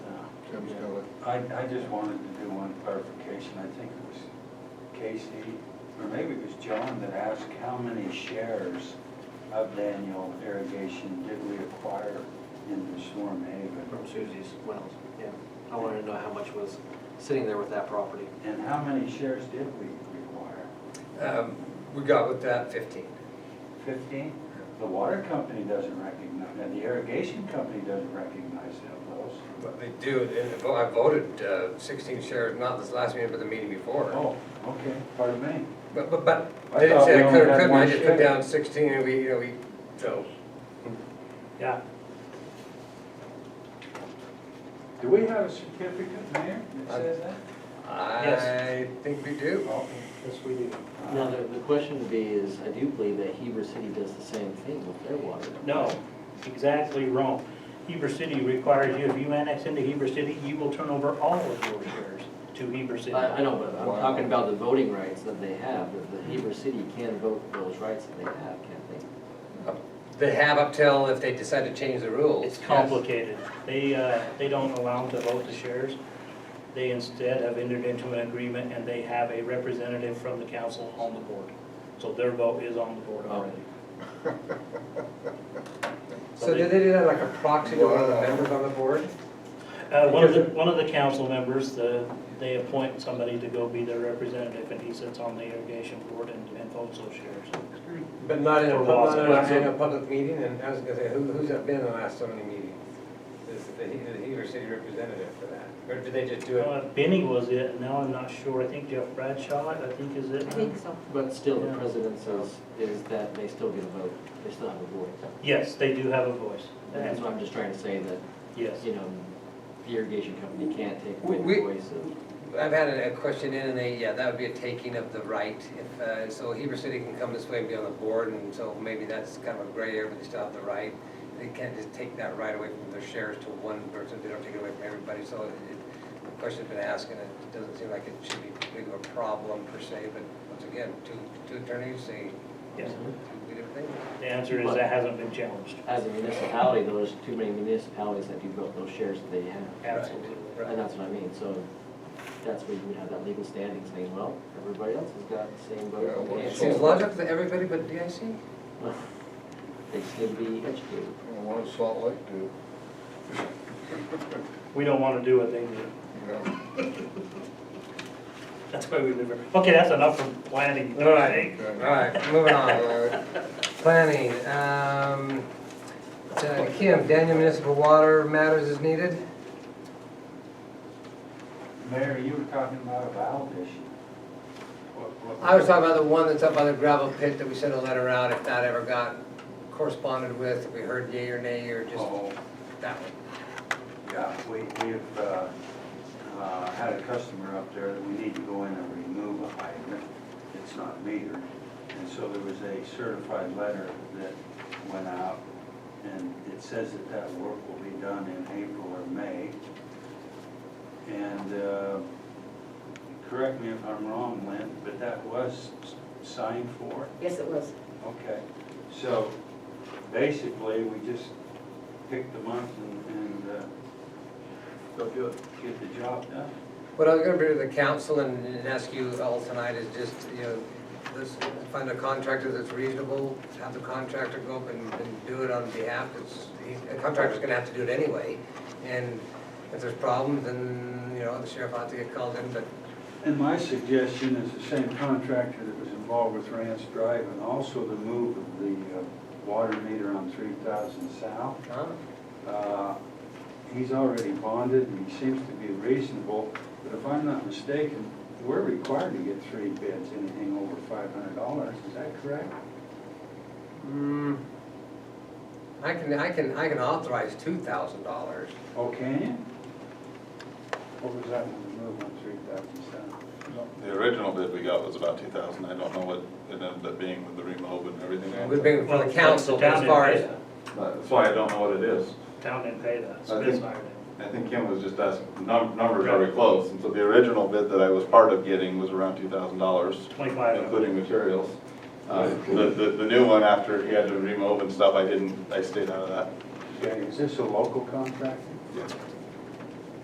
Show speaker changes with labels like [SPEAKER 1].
[SPEAKER 1] Jim's got it.
[SPEAKER 2] I, I just wanted to do one clarification. I think it was Casey, or maybe it was John that asked how many shares of Daniel Irrigation did we acquire in the Storm Haven?
[SPEAKER 3] From Susie's wells, yeah. I wanted to know how much was sitting there with that property.
[SPEAKER 2] And how many shares did we require?
[SPEAKER 4] Um, We got with that fifteen.
[SPEAKER 2] Fifteen? The water company doesn't recognize, and the irrigation company doesn't recognize that those.
[SPEAKER 4] But they do, and if- I voted uh, sixteen shares, not this last meeting, but the meeting before.
[SPEAKER 2] Oh, okay, pardon me.
[SPEAKER 4] But, but, but,
[SPEAKER 2] I
[SPEAKER 4] they didn't
[SPEAKER 2] thought we
[SPEAKER 4] say I could
[SPEAKER 2] only
[SPEAKER 4] or
[SPEAKER 2] had
[SPEAKER 4] couldn't, I
[SPEAKER 2] one
[SPEAKER 4] just took
[SPEAKER 2] share.
[SPEAKER 4] down sixteen and we, you know, we, so.
[SPEAKER 3] Yeah.
[SPEAKER 2] Do we have a certificate, Mayor, that says that?
[SPEAKER 4] I think we do.
[SPEAKER 3] Yes, we do.
[SPEAKER 5] Now, the, the question would be is, I do believe that Heber City does the same thing with their water.
[SPEAKER 6] No, exactly wrong. Heber City requires you, if you annex into Heber City, you will turn over all of your shares to Heber City.
[SPEAKER 5] I, I know, but
[SPEAKER 4] Wow.
[SPEAKER 5] I'm talking about the voting rights that they have, that the Heber City can vote for those rights that they have, can't
[SPEAKER 4] They have up till if they decide to change the rules.
[SPEAKER 6] It's complicated. They, uh, they don't allow them to vote the shares. They instead have entered into an agreement and they have a representative from the council on the board. So their vote is on the board already.
[SPEAKER 4] So do they do that like a proxy to one of the members on the board?
[SPEAKER 6] Uh, one of the, one of the council members, the, they appoint somebody to go be their representative and he sits on the irrigation board and, and votes those shares.
[SPEAKER 2] Uh,
[SPEAKER 4] But not in a,
[SPEAKER 6] For
[SPEAKER 4] pub-
[SPEAKER 6] laws
[SPEAKER 4] not
[SPEAKER 6] and
[SPEAKER 4] in a-
[SPEAKER 6] custom.
[SPEAKER 4] in a public meeting, and I was gonna say, who, who's that been in the last so many meetings? Is the, he- the Heber City representative for that, or do they just do it?
[SPEAKER 6] Uh, Benny was it, and now I'm not sure, I think Jeff Bradshaw, I think is it.
[SPEAKER 7] I think so.
[SPEAKER 5] they? But still, the
[SPEAKER 6] Yeah.
[SPEAKER 5] president says, is that they still get a vote, they still have a voice.
[SPEAKER 6] Yes, they do have a voice,
[SPEAKER 5] And that's what I'm just trying to say, that,
[SPEAKER 6] yes.
[SPEAKER 5] you know, the irrigation company can't take away
[SPEAKER 4] We-
[SPEAKER 5] the
[SPEAKER 4] we-
[SPEAKER 5] voice of.
[SPEAKER 4] I've had a a question in, and they, yeah, that would be a taking of the right, if, uh, so Heber City can come this way and be on the board, and so maybe that's kind of a gray area, but they still have the right. They can't just take that right away from their shares to one person, they don't take it away from everybody, so it- it- the question's been asked, and it doesn't seem like it should be big of a problem per se, but once again, two, two attorneys say
[SPEAKER 6] Yes,
[SPEAKER 4] two different things.
[SPEAKER 6] the answer is that hasn't been challenged,
[SPEAKER 5] As a municipality, though, there's too many municipalities that do vote those shares that they have.
[SPEAKER 6] absolutely.
[SPEAKER 4] Right.
[SPEAKER 5] And that's what I mean, so that's where you would have that legal standing saying, well, everybody else has got the same vote.
[SPEAKER 1] Yeah, well,
[SPEAKER 5] Okay,
[SPEAKER 4] It
[SPEAKER 1] it's
[SPEAKER 5] so-
[SPEAKER 4] seems logical to everybody but DIC.
[SPEAKER 5] They just need to be educated.
[SPEAKER 1] And what does Salt Lake do?
[SPEAKER 6] We don't want to do what they do,
[SPEAKER 1] You know,
[SPEAKER 6] that's why we live here. Okay, that's enough from planning.
[SPEAKER 4] All right.
[SPEAKER 1] okay.
[SPEAKER 4] All right, moving on.
[SPEAKER 1] Uh,
[SPEAKER 4] Planning, um, uh, Kim, Daniel Municipal Water Matters is needed?
[SPEAKER 2] Mayor, you were talking about a valve issue. What- what-
[SPEAKER 4] I was talking about the one that's up by the gravel pit that we sent a letter out, if that ever got corresponded with, if we heard yay or nay, or just
[SPEAKER 2] Oh,
[SPEAKER 4] that one.
[SPEAKER 2] Yeah, we, we've, uh, uh, had a customer up there that we need to go in and remove a hydrant. It's not metered. And so there was a certified letter that went out and it says that that work will be done in April or May. And, uh, correct me if I'm wrong, Lynn, but that was s- signed for?
[SPEAKER 7] Yes, it was.
[SPEAKER 2] Okay, so basically, we just pick the month and, and, uh. Go do it. Get the job done.
[SPEAKER 4] What I was gonna bring to the council and and ask you all tonight is just, you know, let's find a contractor that's reasonable, have the contractor go up and, and do it on behalf, it's, he- a contractor's gonna have to do it anyway. And if there's problems, then, you know, the sheriff ought to get called in, but
[SPEAKER 2] And my suggestion is the same contractor that was involved with Rance Drive and also the move of the, uh, water meter on three thousand south.
[SPEAKER 4] Huh?
[SPEAKER 2] Uh, He's already bonded and he seems to be reasonable, but if I'm not mistaken, we're required to get three bids, anything over five hundred dollars, is that correct?
[SPEAKER 4] Hmm. I can, I can, I can authorize two thousand dollars.
[SPEAKER 2] Oh, can you? What was that one, the move on three thousand seven?
[SPEAKER 8] The original bid we got was about two thousand, I don't know what it ended up being with the remote and everything
[SPEAKER 4] We
[SPEAKER 8] else.
[SPEAKER 4] bring it
[SPEAKER 6] Well,
[SPEAKER 4] from the
[SPEAKER 6] it's
[SPEAKER 4] council
[SPEAKER 6] down
[SPEAKER 4] as
[SPEAKER 6] in
[SPEAKER 4] far as,
[SPEAKER 6] Peta.
[SPEAKER 8] But That's why I don't know what it is.
[SPEAKER 6] Town didn't pay that,
[SPEAKER 8] I
[SPEAKER 6] Smith
[SPEAKER 8] think-
[SPEAKER 6] hired it.
[SPEAKER 8] I think Kim was just asking, num- numbers are very close, and so the original bid that I was part of getting was around two thousand dollars,
[SPEAKER 6] Twenty-five.
[SPEAKER 8] including materials. Uh, The, the, the new one after he had to remove and stuff, I didn't, I stayed out of that.
[SPEAKER 2] Okay, is this a local contractor?
[SPEAKER 8] Yeah.